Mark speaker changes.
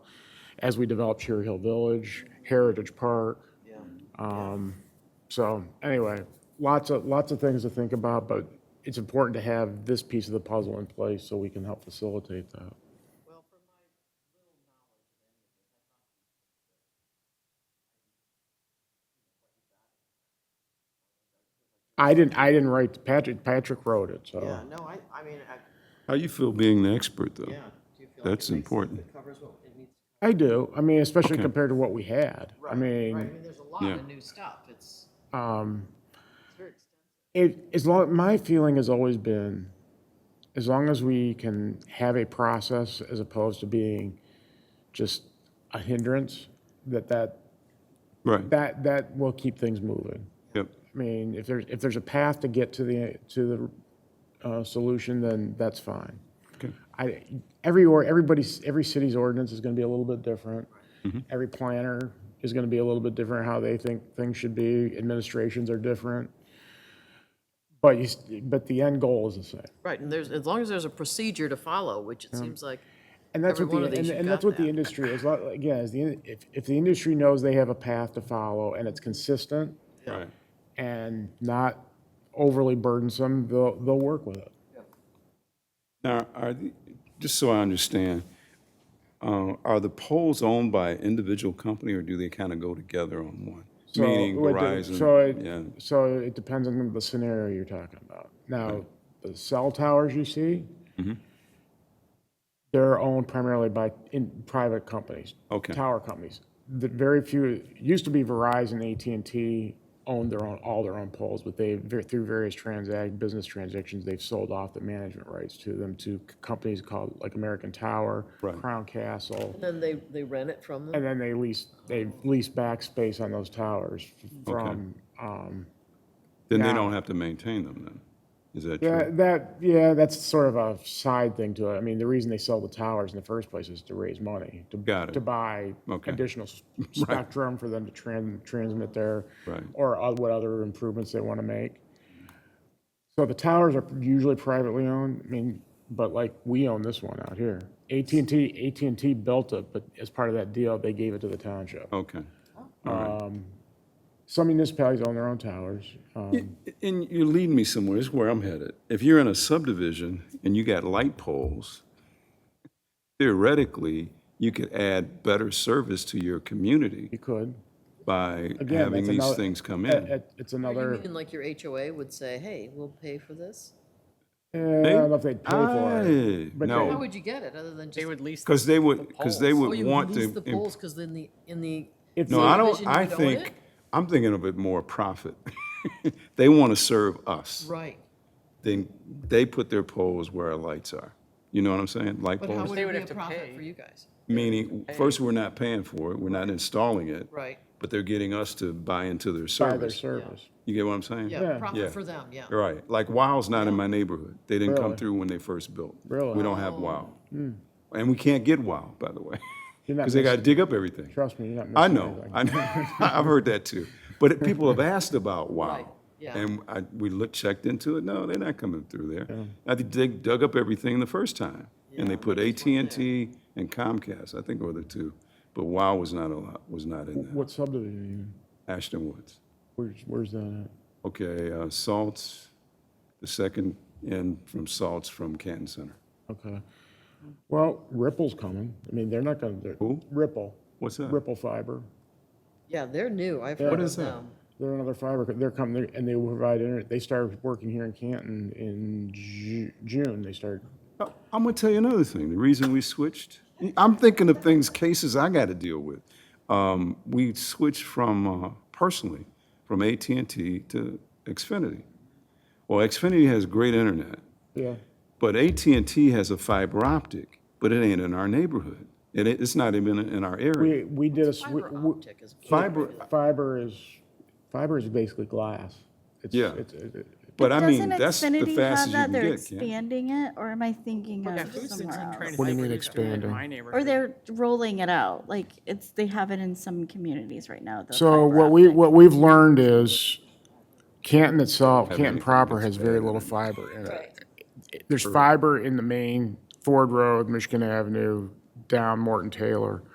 Speaker 1: as we develop Cherry Hill Village, Heritage Park. Um, So anyway, lots of, lots of things to think about, but it's important to have this piece of the puzzle in place so we can help facilitate that. I didn't, I didn't write, Patrick, Patrick wrote it,
Speaker 2: Oh.
Speaker 3: Yeah,
Speaker 1: so.
Speaker 3: no, I, I mean, I,
Speaker 2: How you feel being the expert, though?
Speaker 3: yeah. Do you feel like
Speaker 2: That's
Speaker 3: it makes-
Speaker 2: important.
Speaker 3: It covers what it needs.
Speaker 1: I do, I mean, especially
Speaker 2: Okay.
Speaker 1: compared to what we had. I
Speaker 3: Right, right. I
Speaker 1: mean,
Speaker 3: mean, there's a lot
Speaker 2: Yeah.
Speaker 3: of new stuff. It's,
Speaker 1: um,
Speaker 3: it's very extensive.
Speaker 1: It, as long, my feeling has always been, as long as we can have a process as opposed to being just a hindrance, that that,
Speaker 2: Right,
Speaker 1: that, that will keep things moving.
Speaker 2: yep,
Speaker 1: I mean, if there's, if there's a path to get to the, to the, uh, solution, then that's fine.
Speaker 2: okay,
Speaker 1: I, every, or, everybody's, every city's ordinance is gonna be a little bit different. Every planner is gonna be a little bit different, how they think things should be, administrations are different. But you, s- but the end goal is the same.
Speaker 3: Right, and there's, as long as there's a procedure to follow, which it seems like,
Speaker 1: And that's
Speaker 3: Every
Speaker 1: what the,
Speaker 3: one of these,
Speaker 1: and,
Speaker 3: you've
Speaker 1: and
Speaker 3: got
Speaker 1: that's what the
Speaker 3: that.
Speaker 1: industry is, like. again, is the, in- if, if the industry knows they have a path to follow and it's consistent
Speaker 2: right.
Speaker 1: and not overly burdensome, they'll, they'll work with it.
Speaker 2: Now, are, the- just so I understand, uh, are the poles owned by individual company, or do they kind of go together on one?
Speaker 1: So,
Speaker 2: Meaning
Speaker 1: what the- So
Speaker 2: Verizon, yeah,
Speaker 1: it, so it depends on the scenario you're talking about. Now, the cell towers you see,
Speaker 2: Mm-hmm.
Speaker 1: they're owned primarily by in, private companies.
Speaker 2: Okay.
Speaker 1: Tower companies. The very few, it used to be Verizon, AT&T owned their own, all their own poles, but they, through various transact, business transactions, they've sold off the management rights to them to c- companies called, like American Tower,
Speaker 2: Right.
Speaker 1: Crown Castle.
Speaker 3: then they, they rent it from them.
Speaker 1: And then they lease, they lease back space on those towers from, um,
Speaker 2: then they
Speaker 1: now-
Speaker 2: don't have to maintain them, then? Is that
Speaker 1: yeah,
Speaker 2: true?
Speaker 1: that, yeah, that's sort of a side thing to it. I mean, the reason they sell the towers in the first place is to raise money, to.
Speaker 2: Got it.
Speaker 1: To buy
Speaker 2: Okay.
Speaker 1: additional s- spectrum for them to tran- transmit their.
Speaker 2: Right.
Speaker 1: Or o- what other improvements they want to make. So the towers are usually privately owned, I mean, but like, we own this one out here. AT&T, AT&T built it, but as part of that deal, they gave it to the township.
Speaker 2: Okay, all right.
Speaker 1: Some municipalities own their own towers. um,
Speaker 2: And you're leading me somewhere, this is where I'm headed. If you're in a subdivision and you got light poles, theoretically, you could add better service to your community
Speaker 1: You could.
Speaker 2: by
Speaker 1: Again,
Speaker 2: having
Speaker 1: that's
Speaker 2: these
Speaker 1: another- e-
Speaker 2: things come
Speaker 1: It-
Speaker 2: in.
Speaker 1: it- It's
Speaker 3: Or
Speaker 1: another,
Speaker 3: You mean like your HOA would say, hey, we'll pay for this?
Speaker 1: eh, I don't know if they'd pay for it.
Speaker 2: Aye,
Speaker 1: but
Speaker 3: How
Speaker 2: No,
Speaker 3: would you get it, other than just? They would lease.
Speaker 2: because they would, because they
Speaker 3: Oh,
Speaker 2: would
Speaker 3: you
Speaker 2: want
Speaker 3: lease the
Speaker 2: to. imp-
Speaker 3: poles, because then the, in the.
Speaker 1: If
Speaker 2: No, I don't,
Speaker 3: subdivision, you
Speaker 2: I
Speaker 3: don't own
Speaker 2: think,
Speaker 3: it?
Speaker 2: I'm thinking of it more profit. They want to serve us.
Speaker 3: Right,
Speaker 2: Then they put their poles where our lights are. You know what I'm saying? Light
Speaker 3: but how
Speaker 2: poles,
Speaker 3: would
Speaker 4: They
Speaker 3: it
Speaker 4: would
Speaker 3: be a
Speaker 4: have to
Speaker 3: profit
Speaker 4: pay.
Speaker 3: for you guys?
Speaker 2: meaning, first, we're not paying for it, we're not installing it.
Speaker 3: Right,
Speaker 2: but they're getting us to buy into their
Speaker 1: By their
Speaker 2: service.
Speaker 1: service.
Speaker 2: You get what I'm saying?
Speaker 3: yeah,
Speaker 2: Yeah.
Speaker 3: profit for them, yeah.
Speaker 2: Right, like WOW's not in my neighborhood. They didn't come
Speaker 1: Really?
Speaker 2: through when they first built.
Speaker 1: Really? Hmm.
Speaker 2: We don't have
Speaker 3: Oh.
Speaker 2: WOW. And we can't get WOW, by the way,
Speaker 1: You're not
Speaker 2: because they got to
Speaker 1: missing,
Speaker 2: dig up everything.
Speaker 1: trust me, you're not
Speaker 2: I
Speaker 1: missing
Speaker 2: know,
Speaker 1: anything.
Speaker 2: I know, I've heard that too. But it- people have asked about
Speaker 3: Right,
Speaker 2: WOW.
Speaker 3: yeah.
Speaker 2: And I, we looked, checked into it, no, they're not coming through there. I think they dug up everything the first time, and they put AT&T and Comcast, I think were the two. But WOW was not a lot, was not in
Speaker 1: What subdivision are you in?
Speaker 2: there, Ashton Woods.
Speaker 1: Where's, where's that at?
Speaker 2: Okay, uh, Salts, the second end from Salts from Canton Center.
Speaker 1: Okay. Well, Ripple's coming. I mean, they're not gonna, they're.
Speaker 2: Who?
Speaker 1: Ripple,
Speaker 2: What's that?
Speaker 1: Ripple Fiber.
Speaker 3: Yeah, they're new, I've heard of
Speaker 2: is that?
Speaker 3: them.
Speaker 1: They're another fiber, co- they're coming, they're- and they will provide internet. They started working here in Canton in Ju- June. They started,
Speaker 2: Oh, I'm gonna tell you another thing, the reason we switched, I'm thinking of things, cases I gotta deal with. Um, We switched from, uh, personally, from AT&T to Xfinity. Well, Xfinity has great internet,
Speaker 1: yeah.
Speaker 2: but AT&T has a fiber optic, but it ain't in our neighborhood. It, ain't- it's not even in our
Speaker 1: We,
Speaker 2: area.
Speaker 1: we did a. s- we-
Speaker 3: Fiber
Speaker 1: we-
Speaker 3: optic is.
Speaker 2: Fiber,
Speaker 1: Fiber is, fiber is basically glass. It's-
Speaker 2: Yeah.
Speaker 1: it's- it- it-
Speaker 2: but I mean,
Speaker 5: Doesn't
Speaker 2: that's the
Speaker 5: Xfinity have
Speaker 2: fastest you
Speaker 5: that?
Speaker 2: can
Speaker 5: They're
Speaker 2: get, Ken.
Speaker 5: expanding it, or am I thinking
Speaker 4: Yeah,
Speaker 5: of
Speaker 4: food system
Speaker 5: somewhere
Speaker 4: trying to
Speaker 5: else?
Speaker 1: What do
Speaker 4: think they're
Speaker 1: you mean
Speaker 4: doing in
Speaker 1: expanding?
Speaker 4: My
Speaker 5: Or
Speaker 4: neighborhood.
Speaker 5: they're rolling it out, like it's they have it in some communities right now. the
Speaker 1: So
Speaker 5: fiber
Speaker 1: what we,
Speaker 5: optic.
Speaker 1: what we've learned is Canton itself, Canton
Speaker 2: anything
Speaker 1: proper
Speaker 2: that's
Speaker 1: has very little fiber in it. There's fiber in the main Ford Road, Michigan Avenue, down Morton Taylor.